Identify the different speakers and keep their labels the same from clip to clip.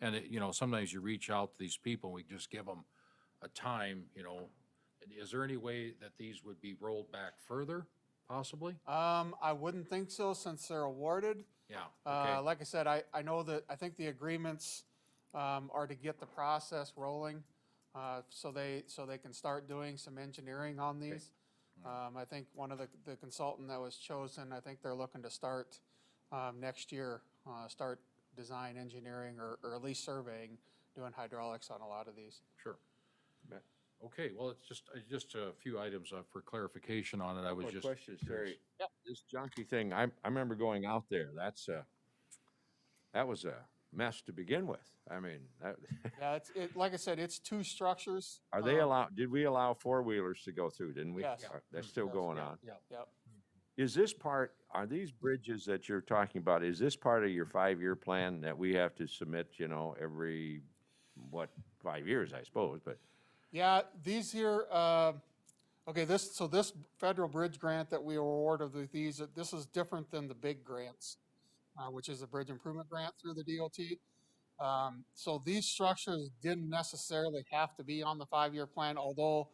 Speaker 1: And it, you know, sometimes you reach out to these people, we just give them a time, you know. Is there any way that these would be rolled back further, possibly?
Speaker 2: Um, I wouldn't think so since they're awarded.
Speaker 1: Yeah,
Speaker 2: Uh,
Speaker 1: okay,
Speaker 2: like I said, I, I know that, I think the agreements, um, are to get the process rolling. Uh, so they, so they can start doing some engineering on these. Um, I think one of the, the consultant that was chosen, I think they're looking to start, um, next year, uh, start design engineering or, or at least surveying, doing hydraulics on a lot of these.
Speaker 1: sure.
Speaker 3: Matt?
Speaker 1: Okay, well, it's just, uh, just a few items uh, for clarification on it, I was
Speaker 3: Quick
Speaker 1: just.
Speaker 3: question,
Speaker 1: curious.
Speaker 3: Terry. This junkie thing, I, I remember going out there, that's a, that was a mess to begin with. I mean, that,
Speaker 2: Yeah, it's, it, like I said, it's two structures.
Speaker 3: are they
Speaker 2: um,
Speaker 3: allowed, did we allow four-wheelers to go through, didn't we?
Speaker 2: Yes.
Speaker 3: Uh, That's
Speaker 1: Hmm.
Speaker 3: still
Speaker 2: Yes,
Speaker 3: going
Speaker 2: yeah,
Speaker 3: on.
Speaker 1: yeah.
Speaker 2: Yep.
Speaker 3: Is this part, are these bridges that you're talking about, is this part of your five-year plan that we have to submit, you know, every, what, five years, I suppose, but
Speaker 2: Yeah, these here, uh, okay, this, so this federal bridge grant that we awarded with these, uh, this is different than the big grants, uh, which is a bridge improvement grant through the DOT. Um, so these structures didn't necessarily have to be on the five-year plan, although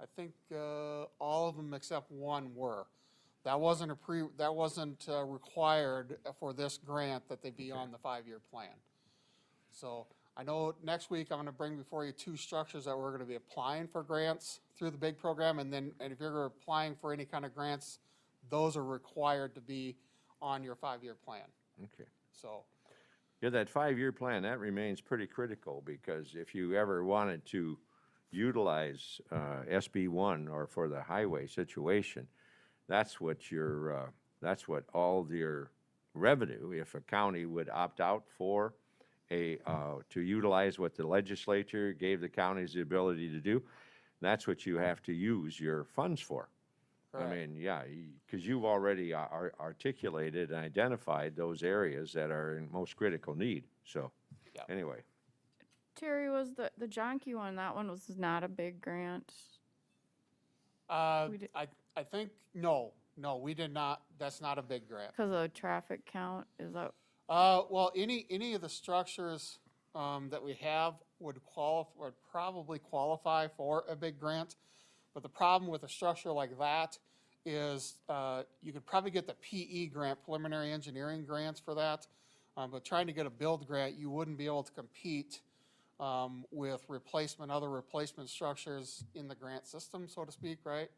Speaker 2: I think, uh, all of them except one were. That wasn't a pre, that wasn't, uh, required for this grant that they be on the five-year plan. So I know next week I'm gonna bring before you two structures that we're gonna be applying for grants through the big program, and then, and if you're applying for any kind of grants, those are required to be on your five-year plan,
Speaker 3: okay.
Speaker 2: so.
Speaker 3: Yeah, that five-year plan, that remains pretty critical because if you ever wanted to utilize uh, SB one or for the highway situation, that's what your, uh, that's what all of your revenue, if a county would opt out for a, uh, to utilize what the legislature gave the counties the ability to do, that's what you have to use your funds for. I
Speaker 2: correct.
Speaker 3: mean, yeah, because you've already a- ar- articulated and identified those areas that are in most critical need, so,
Speaker 2: Yep.
Speaker 3: anyway.
Speaker 4: Terry was the the Jonky one. That one was not a big grant.
Speaker 2: Uh,
Speaker 4: we did-
Speaker 2: I, I think, no, no, we did not, that's not a big grant.
Speaker 4: Because of traffic count, is that,
Speaker 2: Uh, well, any, any of the structures, um, that we have would qualify, would probably qualify for a big grant. But the problem with a structure like that is, uh, you could probably get the PE grant, preliminary engineering grants for that. Um, but trying to get a build grant, you wouldn't be able to compete, um, with replacement, other replacement structures in the grant system, so to speak, right?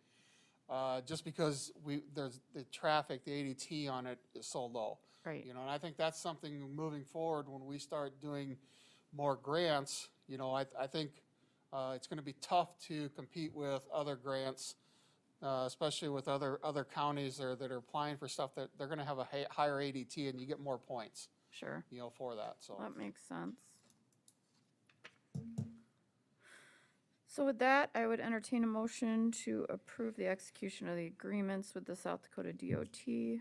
Speaker 2: Uh, just because we, there's, the traffic, the ADT on it is so low.
Speaker 4: right?
Speaker 2: You know, and I think that's something moving forward, when we start doing more grants, you know, I, I think uh, it's gonna be tough to compete with other grants, uh, especially with other, other counties that are, that are applying for stuff that they're gonna have a hi- higher ADT and you get more points,
Speaker 4: Sure,
Speaker 2: you know, for that, so.
Speaker 4: that makes sense. So with that, I would entertain a motion to approve the execution of the agreements with the South Dakota DOT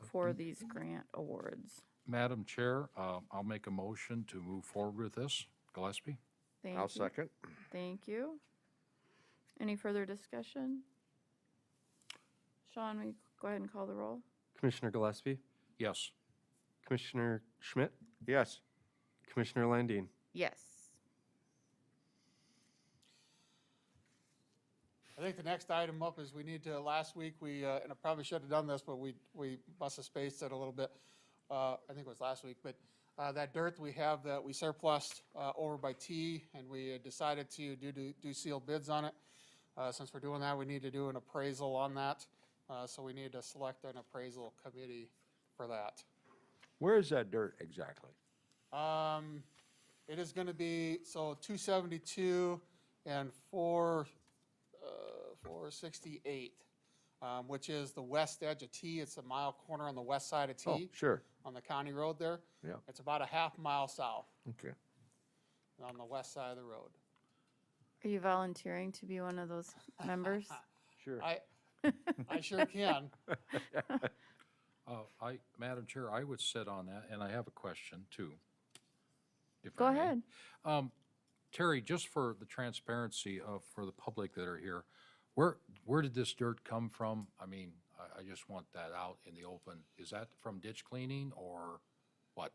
Speaker 4: for these grant awards.
Speaker 1: Madam Chair, uh, I'll make a motion to move forward with this. Gillespie?
Speaker 4: Thank
Speaker 3: I'll
Speaker 4: you.
Speaker 3: second.
Speaker 4: Thank you. Any further discussion? Sean, will you go ahead and call the roll?
Speaker 5: Commissioner Gillespie,
Speaker 1: Yes.
Speaker 5: Commissioner Schmidt,
Speaker 3: Yes,
Speaker 5: Commissioner Landine.
Speaker 4: Yes.
Speaker 2: I think the next item up is we need to, last week, we, uh, and I probably should have done this, but we, we must have spaced it a little bit. Uh, I think it was last week, but, uh, that dirt we have that we surplus, uh, over by T and we had decided to do, do, do sealed bids on it. Uh, since we're doing that, we need to do an appraisal on that. Uh, so we need to select an appraisal committee for that.
Speaker 3: where is that dirt exactly?
Speaker 2: Um, it is gonna be, so two seventy-two and four, uh, four sixty-eight, um, which is the west edge of T. It's a mile corner on the west side of
Speaker 3: Oh,
Speaker 2: T,
Speaker 3: sure,
Speaker 2: on the county road there.
Speaker 3: Yeah.
Speaker 2: It's about a half mile south,
Speaker 3: okay.
Speaker 2: on the west side of the road.
Speaker 4: Are you volunteering to be one of those members?
Speaker 3: Sure.
Speaker 2: I, I sure can.
Speaker 1: Uh, I, Madam Chair, I would sit on that, and I have a question too. if
Speaker 4: Go
Speaker 1: I may.
Speaker 4: ahead.
Speaker 1: Um, Terry, just for the transparency of, for the public that are here, where, where did this dirt come from? I mean, I, I just want that out in the open. Is that from ditch cleaning or what?